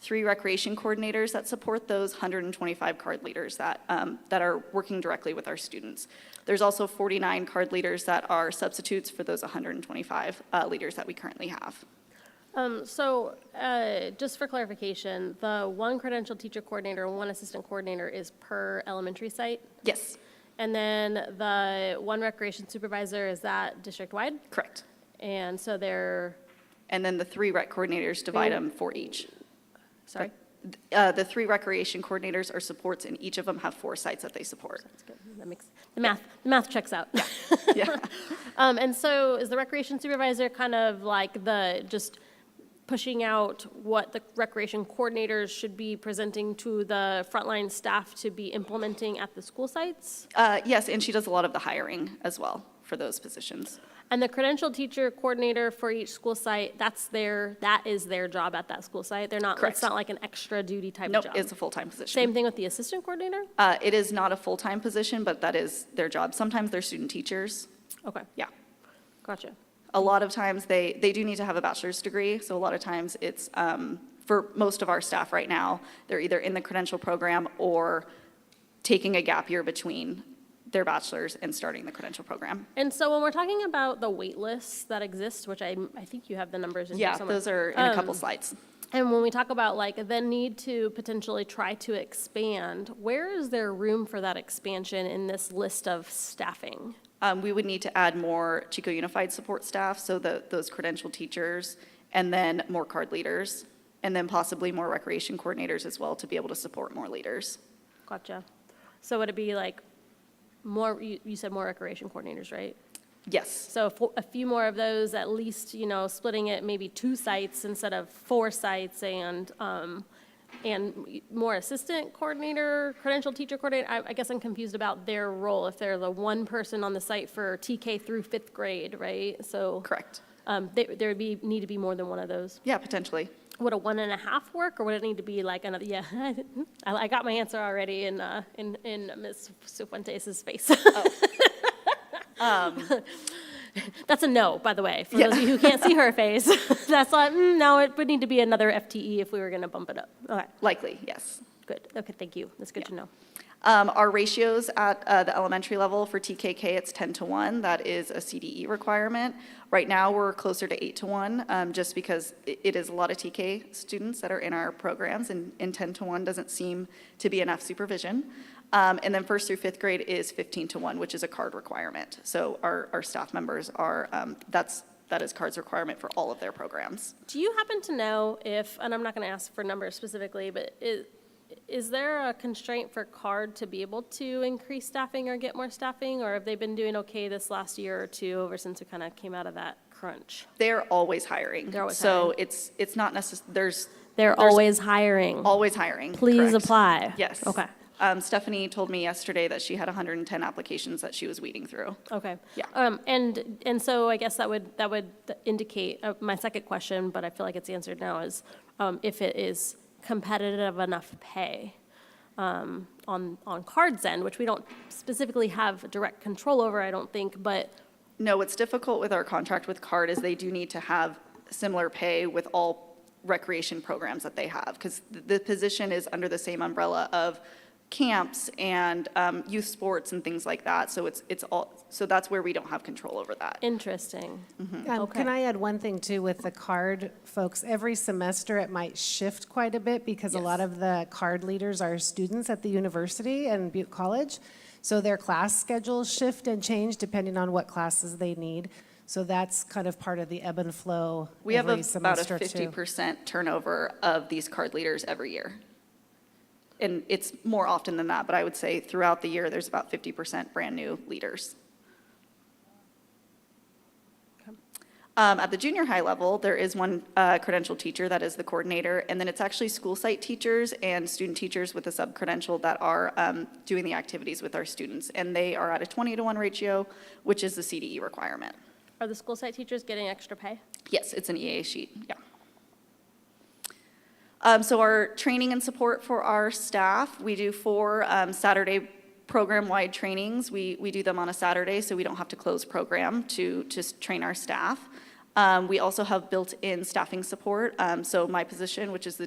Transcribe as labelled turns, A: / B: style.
A: three recreation coordinators that support those 125 card leaders that, um, that are working directly with our students. There's also 49 card leaders that are substitutes for those 125 uh, leaders that we currently have.
B: Um, So, uh, just for clarification, the one credential teacher coordinator and one assistant coordinator is per elementary site?
A: Yes,
B: And then the one recreation supervisor, is that district-wide?
A: correct.
B: And so they're,
A: And then the three rec coordinators divide
B: Three-
A: them for each.
B: sorry?
A: Uh, The three recreation coordinators are supports, and each of them have four sites that they support.
B: That's good. That makes, the math, the math checks out.
A: Yeah.
B: Um, And so is the recreation supervisor kind of like the, just pushing out what the recreation coordinators should be presenting to the frontline staff to be implementing at the school sites?
A: Uh, Yes, and she does a lot of the hiring as well for those positions.
B: And the credential teacher coordinator for each school site, that's their, that is their job at that school site? They're not,
A: Correct.
B: it's not like an extra duty type
A: No,
B: of job?
A: it's a full-time position.
B: Same thing with the assistant coordinator?
A: Uh, It is not a full-time position, but that is their job. Sometimes they're student teachers,
B: Okay,
A: yeah.
B: gotcha.
A: A lot of times, they, they do need to have a bachelor's degree, so a lot of times it's, um, for most of our staff right now, they're either in the credential program or taking a gap year between their bachelor's and starting the credential program.
B: And so when we're talking about the wait lists that exist, which I, I think you have the numbers in here
A: Yeah,
B: somewhere.
A: those are in a
B: um,
A: couple slides.
B: And when we talk about like the need to potentially try to expand, where is there room for that expansion in this list of staffing?
A: Um, We would need to add more Chico Unified support staff, so the, those credentialed teachers, and then more card leaders, and then possibly more recreation coordinators as well to be able to support more leaders.
B: Gotcha. So would it be like more, you, you said more recreation coordinators, right?
A: Yes,
B: So fo- a few more of those, at least, you know, splitting it maybe two sites instead of four sites and, um, and more assistant coordinator, credential teacher coordinator. I, I guess I'm confused about their role, if they're the one person on the site for TK through fifth grade, right? So.
A: correct.
B: Um, there, there would be, need to be more than one of those.
A: Yeah, potentially.
B: Would a one and a half work or would it need to be like another, yeah, I, I got my answer already in, uh, in, in Ms. Sufuentes's face.
A: Um,
B: That's a no, by the way, for those of you who can't see her face. That's like, mm, no, it would need to be another FTE if we were going to bump it up. Okay,
A: Likely, yes.
B: good. Okay, thank you. That's good to know.
A: Um, Our ratios at uh, the elementary level for TKK, it's 10 to 1. That is a CDE requirement. Right now, we're closer to 8 to 1, um, just because i- it is a lot of TK students that are in our programs, and and 10 to 1 doesn't seem to be enough supervision. Um, And then first through fifth grade is 15 to 1, which is a card requirement. So our, our staff members are, um, that's, that is cards requirement for all of their programs.
B: Do you happen to know if, and I'm not going to ask for numbers specifically, but is, is there a constraint for CARD to be able to increase staffing or get more staffing? Or have they been doing okay this last year or two, ever since we kind of came out of that crunch?
A: They're always hiring.
B: They're always
A: So
B: hiring.
A: it's, it's not necess, there's.
B: They're
A: there's
B: always hiring.
A: Always hiring.
B: Please
A: correct.
B: apply.
A: Yes.
B: Okay.
A: Um, Stephanie told me yesterday that she had 110 applications that she was weeding through.
B: Okay.
A: Yeah.
B: Um, and, and so I guess that would, that would indicate, uh, my second question, but I feel like it's answered now, is, um, if it is competitive enough pay, um, on, on cards end, which we don't specifically have direct control over, I don't think, but,
A: No, what's difficult with our contract with CARD is they do need to have similar pay with all recreation programs that they have, because the position is under the same umbrella of camps and um, youth sports and things like that. So it's, it's all, so that's where we don't have control over that.
B: interesting.
A: Mm-hmm.
C: Um, Can
B: Okay.
C: I add one thing too with the card folks? Every semester, it might shift quite a bit because a lot of the card leaders are students at the university and Butte College. So their class schedules shift and change depending on what classes they need. So that's kind of part of the ebb and flow
A: We have
C: every
A: a- about a
C: semester too.
A: 50% turnover of these card leaders every year. And it's more often than that, but I would say throughout the year, there's about 50% brand-new leaders. Um, At the junior high level, there is one uh, credentialed teacher that is the coordinator, and then it's actually school site teachers and student teachers with a sub-credential that are um, doing the activities with our students, and they are at a 20 to 1 ratio, which is the CDE requirement.
B: Are the school site teachers getting extra pay?
A: Yes, it's an EA sheet, yeah. Um, so our training and support for our staff, we do four um, Saturday program-wide trainings. We, we do them on a Saturday, so we don't have to close program to, to s- train our staff. Um, we also have built-in staffing support. Um, so my position, which is the